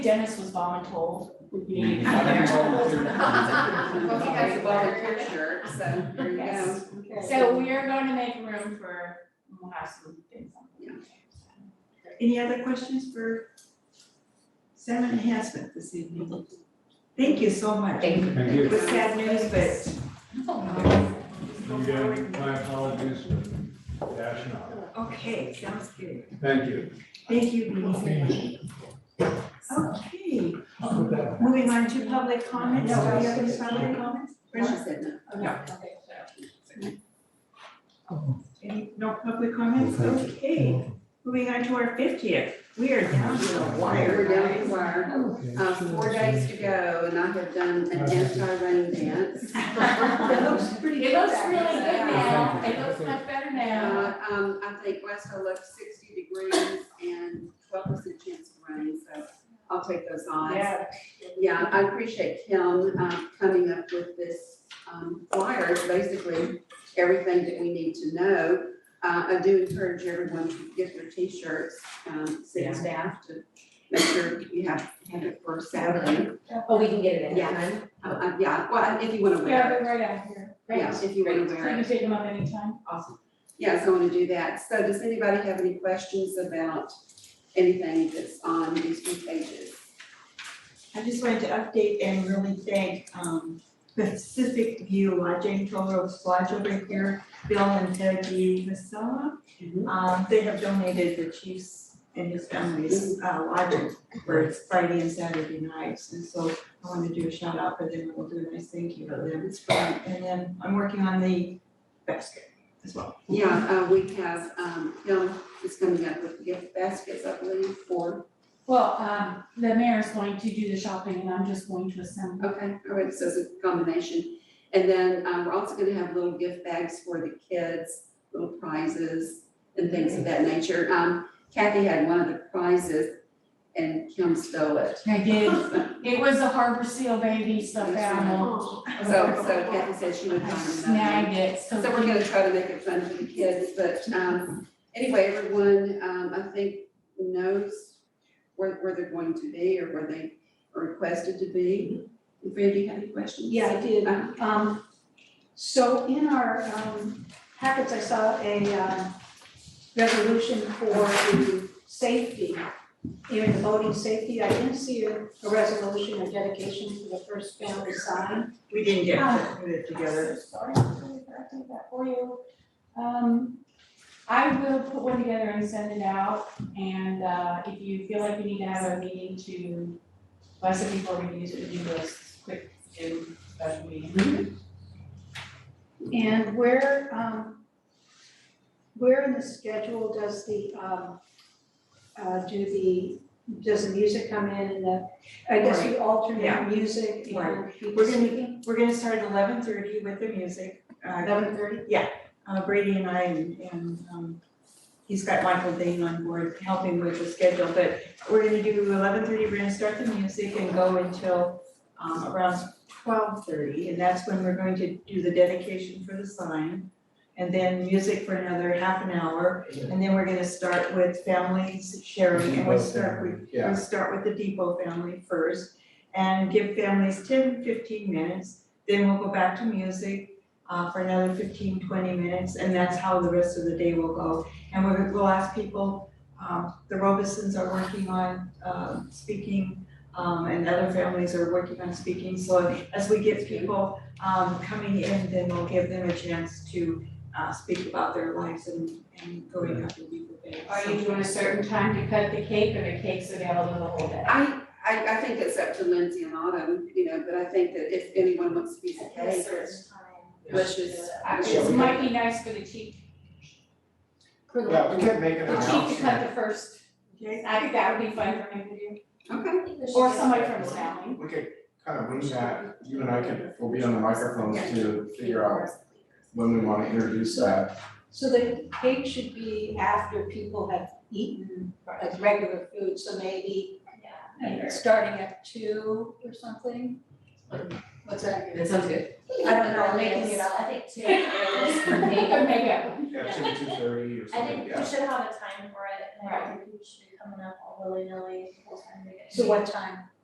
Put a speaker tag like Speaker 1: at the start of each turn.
Speaker 1: Dennis was voluntold.
Speaker 2: Mhm.
Speaker 1: Out there.
Speaker 3: Well,
Speaker 4: Well,
Speaker 3: if you guys have volunteer shirt, so there you go.
Speaker 1: Yes. So we're going to make room for, we'll have some things on. the weekend, so.
Speaker 4: Any other questions for Salmon Enhancement this evening? Thank you so much.
Speaker 3: Thank you.
Speaker 2: Thank
Speaker 4: It
Speaker 2: you.
Speaker 4: was sad news, but. um,
Speaker 2: Again, my apologies for dashing out.
Speaker 4: Okay, sounds good.
Speaker 2: Thank you.
Speaker 4: Thank you, Beanie. Okay, moving on to public comments. Do we have any public comments?
Speaker 3: Brenda said no.
Speaker 4: No,
Speaker 1: Okay, so.
Speaker 4: any, no public comments? Okay, moving on to our fiftieth. We are down to the
Speaker 3: We're
Speaker 4: wire.
Speaker 3: down to the wire. Uh, four days to go and I have done an anti-rain dance. It looks pretty
Speaker 1: It
Speaker 3: good
Speaker 1: looks
Speaker 3: back
Speaker 1: really good
Speaker 3: there.
Speaker 1: now, it looks much better now.
Speaker 3: Uh, um, I think last I looked sixty degrees and twelve percent chance of rain, so I'll take those odds.
Speaker 1: Yeah.
Speaker 3: Yeah, I appreciate Kim um, coming up with this um, flyer, It's basically everything that we need to know. Uh, I do encourage everyone to get their T-shirts, um, city staff to make sure you have, have it for Saturday.
Speaker 1: Oh,
Speaker 5: But we can get it
Speaker 3: Yeah.
Speaker 5: in time.
Speaker 3: Uh, uh, Yeah, well, if you want to
Speaker 1: Yeah,
Speaker 3: wear it,
Speaker 1: they're right out here.
Speaker 3: yeah, if you want to
Speaker 1: So you
Speaker 3: wear
Speaker 1: can
Speaker 3: it,
Speaker 1: take them up anytime.
Speaker 3: awesome. Yeah, so I want to do that. So does anybody have any questions about anything that's on these two pages?
Speaker 4: I just wanted to update and really thank um Pacific View Lodging, Toll Roads Lodge over here, Bill and Debbie Masala.
Speaker 3: Mhm.
Speaker 4: Um, they have donated the chief's and his family's uh lodging for its Friday and Saturday nights. And so I want to do a shout out for them and we'll do a nice thank you for them. It's fun. And then I'm working on the basket as well.
Speaker 3: Yeah, uh, we have, um, Kim is coming up with gift baskets, I believe, for,
Speaker 1: Well, um, the mayor's going to do the shopping and I'm just going to assemble.
Speaker 3: okay, all right, so it's a combination. And then, um, we're also gonna have little gift bags for the kids, little prizes and things of that nature. Um, Kathy had one of the prizes and Kim stole it.
Speaker 1: I did,
Speaker 3: So,
Speaker 1: it was a Harbor Seal baby stuffed animal.
Speaker 3: so Kathy said she would
Speaker 1: I
Speaker 3: find another.
Speaker 1: snagged it, so.
Speaker 3: So we're gonna try to make it fun for the kids, but, um, anyway, everyone, um, I think knows where, where they're going to be or where they are requested to be. Fran, do you have any questions?
Speaker 6: Yeah, I did.
Speaker 3: Uh,
Speaker 6: Um, so in our, um, packets, I saw a, uh, resolution for the safety, in the voting safety. I didn't see a, a resolution or dedication to the first family sign.
Speaker 4: We didn't get to put it together.
Speaker 1: Sorry, I'm really bad at that for you. Um, I will put one together and send it out, and, uh, if you feel like you need to have a meeting to, well, I said before we use it, we do this quick, do, but we.
Speaker 6: And where, um, where in the schedule does the, um, uh, do the, does the music come in and the, I guess we
Speaker 4: Yeah.
Speaker 6: alternate music and people
Speaker 4: We're gonna-
Speaker 6: speaking?
Speaker 4: We're gonna start at eleven thirty with the music. Uh,
Speaker 6: Eleven thirty?
Speaker 4: uh, Brady and I and, and, um, he's got Michael Dane on board helping with the schedule, but we're gonna do eleven thirty, we're gonna start the music and go until, um, around twelve thirty, and that's when we're going to do the dedication for the sign. And then music for another half an hour, and then we're gonna start with families sharing, and we'll start with
Speaker 2: Yeah.
Speaker 4: We'll start with the depot family first and give families 10, 15 minutes. Then we'll go back to music uh, for another 15, 20 minutes, and that's how the rest of the day will go. And we're, we'll ask people, um, the Robesons are working on, uh, speaking, um, and other families are working on speaking. So as we get people, um, coming in, then we'll give them a chance to, uh, speak about their lives and, and going up in depot family.
Speaker 1: Are you doing a certain time to cut the cake, or the cake's available the whole day?
Speaker 3: I, I, I think it's up to Lindsay and Autumn, you know, but I think that if anyone wants to be the case or wishes.
Speaker 1: I- It might be nice for the chief,
Speaker 6: For the-
Speaker 2: Yeah, we can make an
Speaker 1: the chief to cut
Speaker 2: announcement.
Speaker 1: the first,
Speaker 4: Okay?
Speaker 1: I think that would be fun for him to do,
Speaker 3: Okay,
Speaker 1: or somebody from his family.
Speaker 2: We could kind of wing that, you and I can, we'll be on the microphones to figure out when we want to introduce that.
Speaker 6: So the cake should be after people have eaten like regular food, so maybe uh,
Speaker 1: Later.
Speaker 6: starting at two or something? What's that?
Speaker 5: That sounds good.
Speaker 6: I don't know, making it up.
Speaker 7: I think two hours for me.
Speaker 1: Maybe.
Speaker 2: Yeah, two, two thirty or
Speaker 7: I
Speaker 2: something,
Speaker 7: think we
Speaker 2: yeah.
Speaker 7: should have a time for it, and I don't think we should be coming up all willy-nilly, people trying to get.
Speaker 4: So what time?